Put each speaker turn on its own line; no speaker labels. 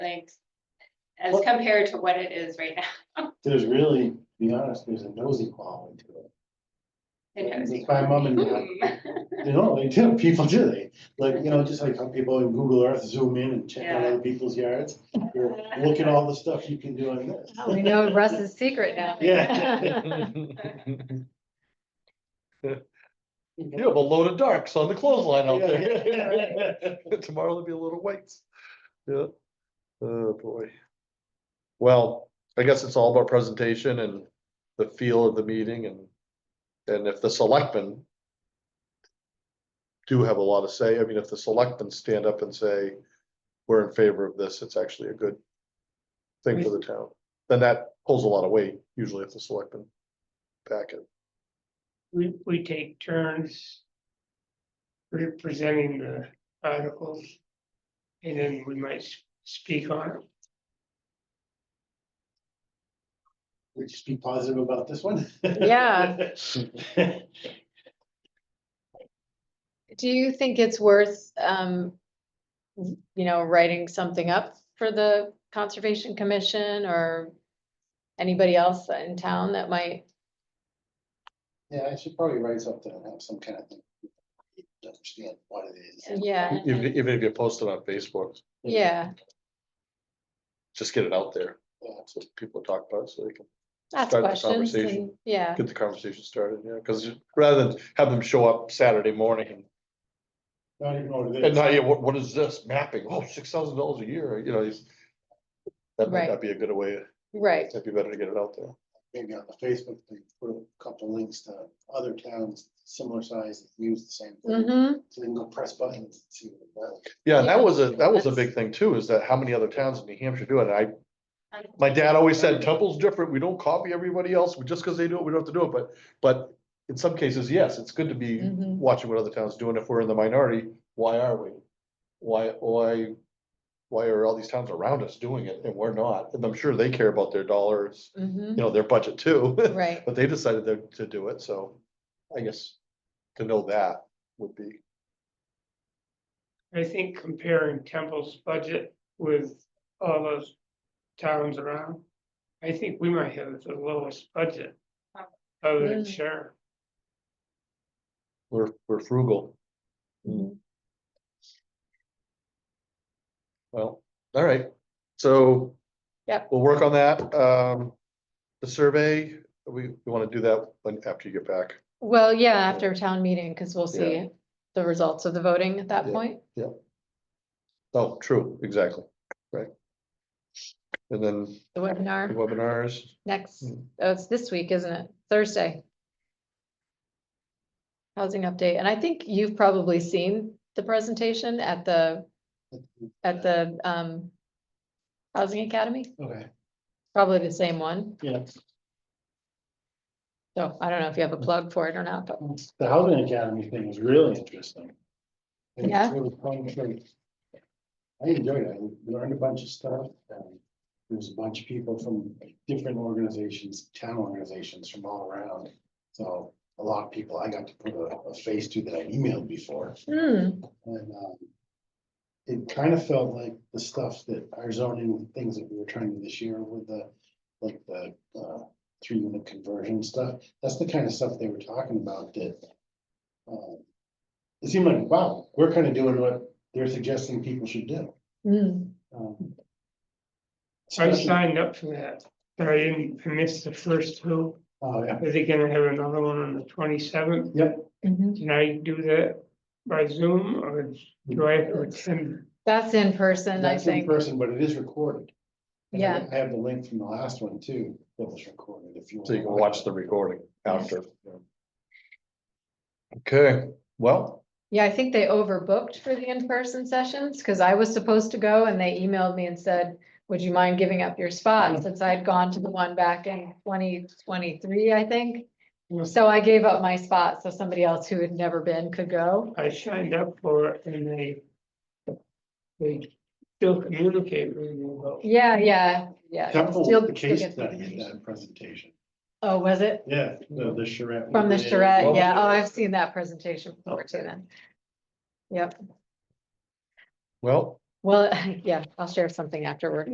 Thanks. As
What-
compared to what it is right now.
There's really, to be honest, there's a nosy quality to it.
Who knows?
It's my mom and dad.
Hmm.
You know, they do, people do, they, like, you know, just like how people in Google Earth zoom in and check out
Yeah.
other people's yards. You're, Look at all the stuff you can do on this.
Oh, We know Russ's secret now.
Yeah.
You have a load of darks on the clothesline out there.
Yeah.
Tomorrow there'll be a load of whites. Yeah. Oh, boy. Well, I guess it's all about presentation and the feel of the meeting and, and if the selectmen do have a lot of say, I mean, if the selectmen stand up and say, we're in favor of this, it's actually a good thing for the town, then that pulls a lot of weight, usually if the selectmen back it.
we, we take turns representing the articles, and then we might s- speak on it.
We just be positive about this one.
Yeah. Do you think it's worth, um, w- you know, writing something up for the Conservation Commission or anybody else in town that might,
Yeah, I should probably write something and have some kind of thing. to Understand what it is.
yeah,
Even, even if you post it on Facebook,
yeah,
just get it out there,
Yeah.
so people talk about it, so they can
ask
Start the
questions and-
conversation.
yeah,
get the conversation started, yeah, because rather than have them show up Saturday morning
Not even what it
and
is.
now, yeah, what, what is this mapping? Oh, six thousand dollars a year, you know, it's- that might
Right.
not be a good way,
right,
it'd be better to get it out there.
Maybe on the Facebook thing, put a couple links to other towns similar size that use the same thing.
hmm
So they can go press buttons and see what it does.
Yeah, and that
Yeah,
was a, that was a
that's-
big thing too, is that how many other towns in New Hampshire do it, I, my dad always said Temple's different, we don't copy everybody else, We just because they do it, we don't have to do it, but, but in some cases, yes, it's good to be
Mhm.
watching what other towns do, and if we're in the minority, why are we? Why, why, why are all these towns around us doing it and we're not? And I'm sure they care about their dollars,
hmm
you know, their budget too,
right,
but they decided to, to do it, so I guess to know that would be,
I think comparing Temple's budget with all those towns around, I think we might have the lowest budget other than
Mm.
Sharon.
we're, we're frugal, Mm-hmm.
Mhm.
well, all right, so.
Yep.
We'll work on that, um, the survey, we, we wanna do that when, after you get back.
well, yeah, after town meeting, because we'll
Yeah.
see the results of the voting at that
Yeah.
point.
Oh, true, exactly, right. And then
The
the
webinar
webinars,
next,
Hmm.
oh, it's this week, isn't it? Thursday. Housing update, and I think you've probably seen the presentation at the, at the, um. Housing Academy,
Okay,
probably the same one,
yeah.
so I don't know if you have a
Hmm.
plug for it or not, but,
The housing academy thing was really interesting. And it's
Yeah.
really fun for- I enjoyed it. I learned a bunch of stuff. and There was a bunch of people from different organizations, town organizations from all around. So a lot of people I got to put a a face to that I emailed before.
Hmm,
And um, it kind of felt like the stuff that our zoning things that we were trying to do this year with the, like the uh, three unit conversion stuff. That's the kind of stuff they were talking about that. um, It seemed like, wow, we're kind of doing what they're suggesting people should do.
hmm,
Um,
I
especially-
signed up for that, but I didn't, I missed the first two.
Oh, yeah,
Are they gonna have another one on the twenty-seventh?
mhm.
Can I do that by Zoom or do I have to attend?
that's in person, I
that's in
think,
person, but it is recorded. And I-
Yeah.
I have the link from the last one too, that was recorded if you.
so you can
wanna
watch the recording after. Okay, well,
yeah, I think they overbooked for the in-person sessions, because I was supposed to go and they emailed me and said. Would you mind giving up your
Mm.
spot, since I'd gone to the one back in twenty twenty-three, I think?
Mm.
So I gave up my spot, so somebody else who had never been could go.
I signed up for it and they. They still communicate with me about.
Yeah, yeah, yeah.
Temple,
Still-
was the
still
case
gets the
study in
information.
that presentation.
Oh, was it?
Yeah, the, the charrette.
From the
Yeah.
charrette,
Well-
yeah, oh, I've seen that presentation before too then. Yep,
well,
Well, yeah, I'll share something afterward.